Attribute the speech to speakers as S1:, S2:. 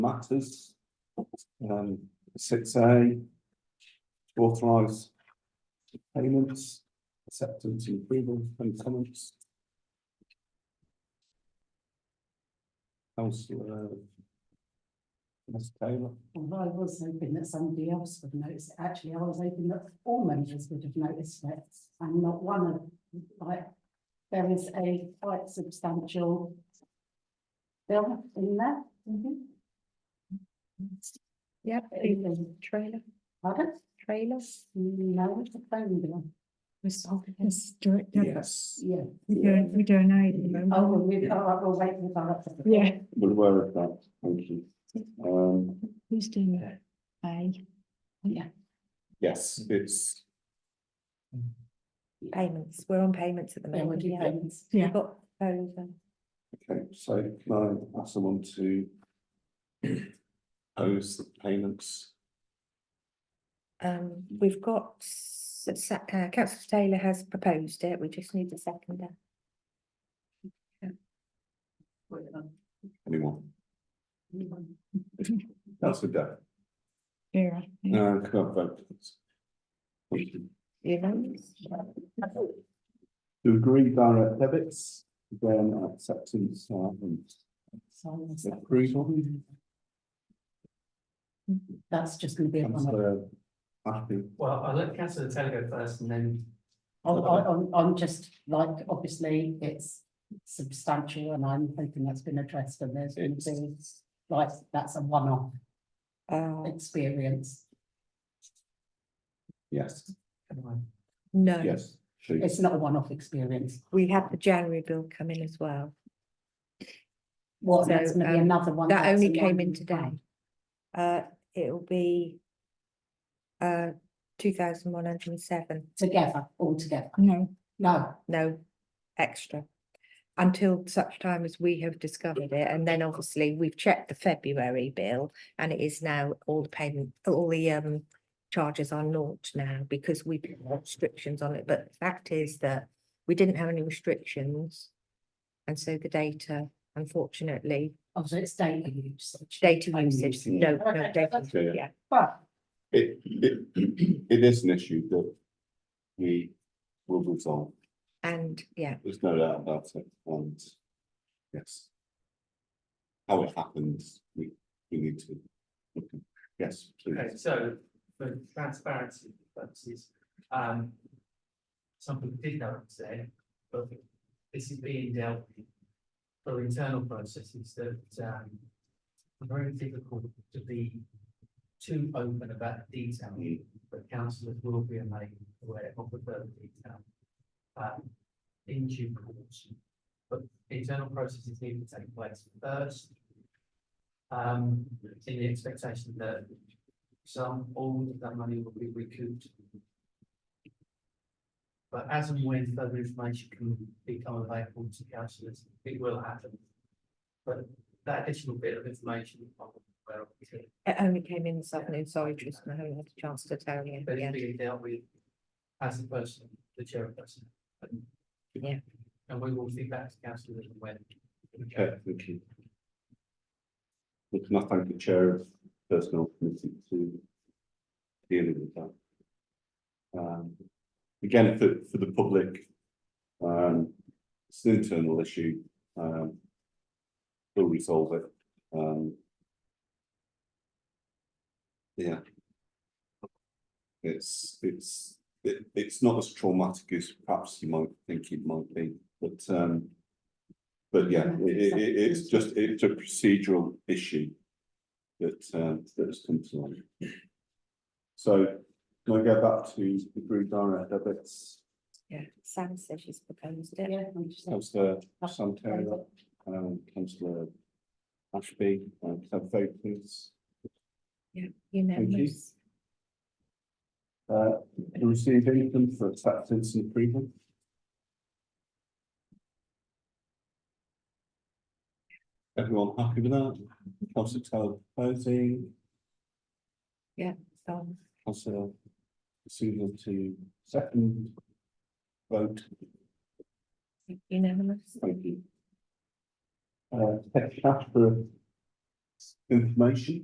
S1: matters. Um, six A. Authorize. Payments, acceptance, and approval, and comments. Councillor. Ms Taylor,
S2: Although I was hoping that somebody else would notice it, actually, I was hoping that all members would have noticed it, and not one of, like, there is a quite substantial bill in there.
S3: Mm-hmm. Yep,
S2: Even-
S3: trailer,
S2: Pardon?
S3: trailers.
S2: No, it's a phone bill,
S3: It's direct,
S1: yes,
S2: yeah.
S3: we don't, we don't know.
S2: Oh, well, we, oh, I will wait for the director.
S3: Yeah.
S1: we're aware of that, thank you. Um,
S3: Who's doing that? Pay,
S1: yes, it's,
S4: Payments, we're on payments at the
S2: There would
S4: moment,
S2: be
S4: yeah.
S2: payments.
S3: yeah.
S4: We've got um, over.
S1: okay, so can I ask someone to. Oppose the payments,
S4: Um, we've got, s- s- uh, councillor Taylor has proposed it, we just need a seconder.
S1: anyone? That's a debt.
S3: Yeah.
S1: No, I can't vote. Thank you.
S4: You know?
S1: To agree direct debits, then acceptance uh, and
S2: So that's-
S1: approval.
S2: That's just gonna be. a one-off.
S1: Councillor Ashby,
S5: Well, I'll let Councillor Taylor go first and then
S2: On, on, on- on just like, obviously, it's substantial and I'm hoping that's been addressed and there's going to be, like, that's a one-off
S4: Uh,
S2: experience.
S1: yes,
S5: come on.
S4: no,
S1: yes, she,
S2: It's not a one-off experience.
S4: we have the January bill come in as well,
S2: Well,
S4: So,
S2: that's going to be
S4: um,
S2: another one.
S4: that
S2: that's
S4: only
S2: a
S4: came in
S2: one-off.
S4: today. uh, it'll be. Uh, two thousand one hundred and seven,
S2: Together, all together.
S3: No,
S2: No,
S4: no, extra. Until such time as we have discovered it, and then obviously we've checked the February bill, and it is now all the payment, all the um. Charges are naught now because we put restrictions on it, but the fact is that we didn't have any restrictions. And so the data, unfortunately,
S2: obviously it's data usage.
S4: data
S2: Only
S4: usage,
S2: usage.
S4: no,
S2: Okay,
S4: no data,
S2: that's-
S1: yeah.
S4: yeah,
S2: But
S1: it, it, it is an issue that we will resolve,
S4: and yeah,
S1: there's no doubt about it, and yes. How it happens, we, we need to, look at- yes,
S5: Okay,
S1: please,
S5: so for transparency purposes, um. Some people did know it today, but this is being dealt with. For internal processes that um. Are very difficult to be too open about detail, but councillors will be made aware of the further detail. Um, in due course, but internal processes need to take place first. Um, in the expectation that some, all of that money will be recouped. But as and when further information can become available to councillors, it will happen. But that additional bit of information, I'm aware of, it,
S4: it only came in this afternoon, sorry, Tristan, I haven't had a chance to tell you,
S5: but
S4: yeah.
S5: it's being dealt with as a person, the chairperson. and-
S4: Yeah.
S5: And we will feedback to councillors when.
S1: okay, thank you. We can I thank the chair of personnel committee to dealing with that. Um, again, for, for the public, um, it's an internal issue, um, we'll resolve it, um. Yeah. It's, it's, it, it's not as traumatic as perhaps you might think it might be, but, um. But yeah, it, it, it- it's just, it's a procedural issue that, um, that has come to light. So can I go back to the group direct debits?
S4: Yeah, Sam says she's proposed it.
S2: yeah, I'm just.
S1: Councillor Sam Taylor, um, councillor Ashby, um, can I have a vote please?
S4: Unanimous.
S1: Uh, to receive income for acceptance and approval? Everyone happy with that? Councillor Taylor proposing,
S4: Done.
S1: councillor Susan to second vote,
S4: Unanimous.
S1: thank you. Uh, tech cash for information.